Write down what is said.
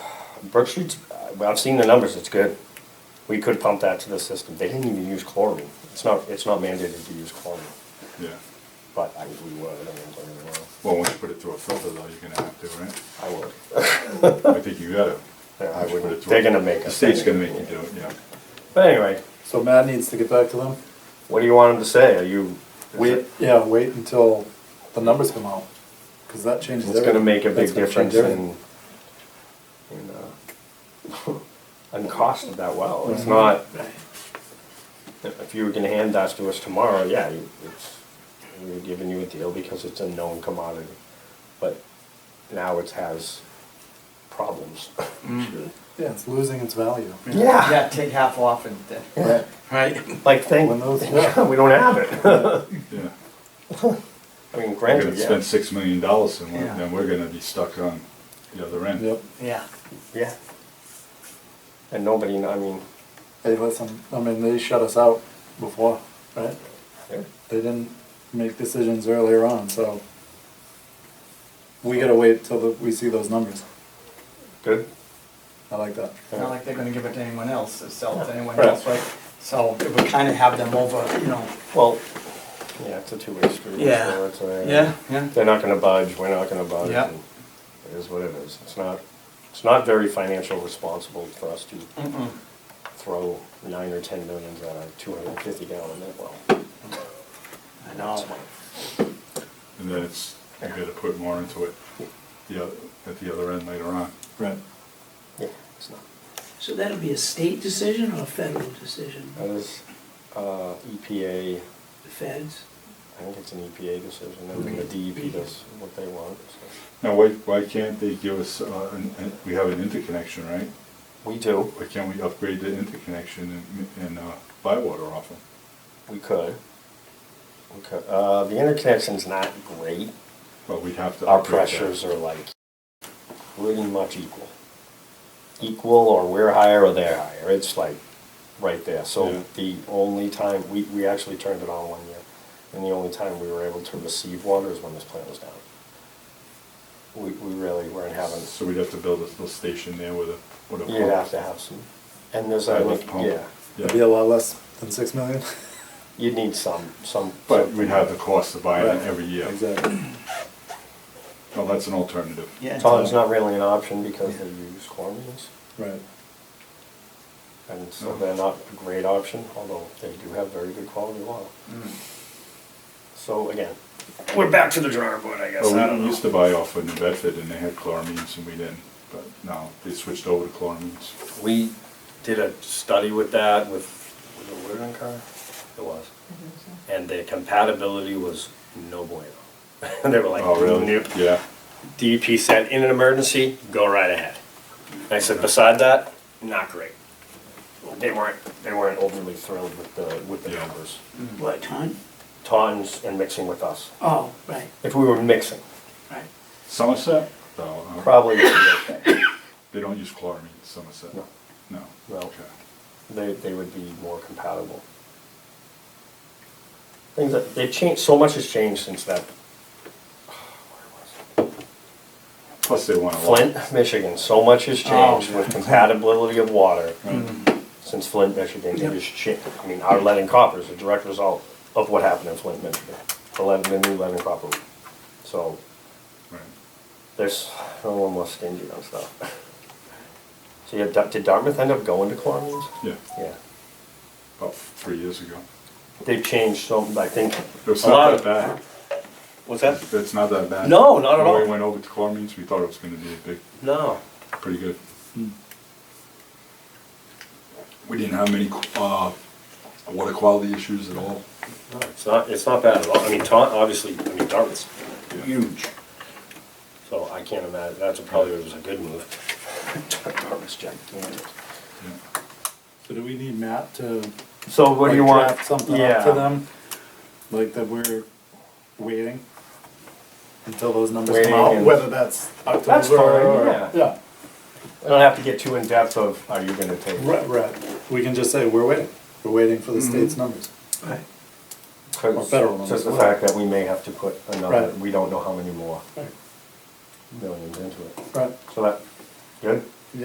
Brook Street's, uh, well, I've seen the numbers, it's good. We could pump that to the system. They didn't even use chlorine. It's not, it's not mandated to use chlorine, Yeah, but I, we would, I mean, don't get me wrong. well, once you put it through a filter though, you're gonna have to, right? I would. I think you gotta. Yeah, I Once you put wouldn't- it through a- they're gonna make The us. state's gonna make you do it, yeah. But anyway, So Matt needs to get back to them. what do you want them to say? Are you? is Wait, it- yeah, wait until the numbers come out, because that changes It's everything. gonna make a That's big gonna change difference in, everything. in, uh, in cost of that well. Mm-hmm. It's not, if you were gonna hand that to us tomorrow, yeah, you- it's, we're giving you a deal because it's a known commodity. But now it has problems. Yeah, it's losing its value. Yeah, take half off and, uh, Right. right? Like, thank, When those- yeah. we don't have it. Yeah, I mean, we're granted, gonna yeah, spend six million dollars and we're- Yeah. then we're gonna be stuck on the other end. Yep. Yeah. yeah. And nobody, I mean, Hey, listen, I mean, they shut us out before, right? yeah. They didn't make decisions earlier on, so we gotta wait till the- we see those numbers. good. I like that. It's not like they're gonna give it to anyone else, to sell it to anyone Right. else, right? So it would kinda have them over, you know. Well, yeah, it's a two-way street. Yeah. so it's a- Yeah, yeah. They're not gonna budge, we're not gonna budge. Yeah. and It is what it is. It's not, it's not very financial responsible for us to Mm-mm. throw nine or ten millions at a two hundred and fifty gallon net well. I know. And then it's, you gotta put more into it, the oth- at the other end later on. Right. Yeah, it's not. So that'll be a state decision or a federal decision? That is, uh, EPA, The feds? I think it's an EPA decision, and then the DEP does what they want, so. Now, why, why can't they give us, uh, an- an- we have an interconnection, right? We do, Why can't we upgrade the interconnection and, and uh, buy water off them? we could. We could, uh, the interconnection's not great. But we'd have to. our upgrade that. pressures are like pretty much equal. Equal or we're higher or they're higher, it's like right there. Yeah. So the only time, we, we actually turned it on one year. And the only time we were able to receive water is when this plant was down. We, we really weren't having, So we'd have to build a little station there with a, with a pump. you'd have to have some, and there's, I Side lift think, pump. yeah, It'd be a Yeah. lot less than six million. you'd need some, some. But we'd have the cost of buying it Right. every year. Exactly. Well, that's an alternative. Yeah. Well, It's not really an option because they use corners. Right. And so they're not a great option, although they do have very good quality oil. So again, Mm. we're back to the drawing board, I guess, I Well, don't we used know. to buy off of New Bedford and they had chloramines and we didn't. But now they switched over to chloramines. We did a study with that with, with a wooden car, it was. And the compatibility was no bueno. And they were like, Oh, really? "Nope." Yeah. DEP said, in an emergency, go right ahead. And I said, beside that, not great. They weren't, they weren't overly thrilled with the, with the Yeah. numbers. What, ton? Tons and mixing with us, Oh, right, if we were mixing. right. Somerset, though, uh, Probably would be okay. they don't use chloramines, in Somerset. No. No. No. Okay. They, they would be more compatible. Things that, they've changed, so much has changed since that. Plus they want a lot. Flint, Michigan, so much has changed Oh. with compatibility of water Right. since Flint, Michigan, it Yep. has changed. I mean, our lead and copper is a direct result of what happened in Flint, Michigan, the lead, the new lead and copper. So Right. there's, no one more stingy on stuff. So yeah, Dar- did Dartmouth end up going to chlorines? Yeah, Yeah. about three years ago. They've changed some, I think. It's a lot not of- that What's bad. that? It's not that bad. No, not at When all. we went over to chloramines, we thought it was gonna be a big, No. pretty good. We didn't have many, uh, water quality issues at all. No, It's not, it's not bad at all. I mean, Taunton, obviously, I mean, Dartmouth's Yeah. huge. So I can't imagine, that's probably was a good move. Dartmouth's gigantic. Yeah. So do we need Matt to? So what do like, you want? draft Something yeah. up to them, like that we're waiting until those numbers Waiting come out, and- whether that's That's October or. fine, Yeah, I don't have to get too in-depth of, are you gonna take? right, right, we can just say, we're waiting, we're waiting for Mm-hmm. the state's numbers. Right. Or federal ones Just as the well. fact that we may have to put another, Right. we don't know how many more Right, millions into it. right, So that, good?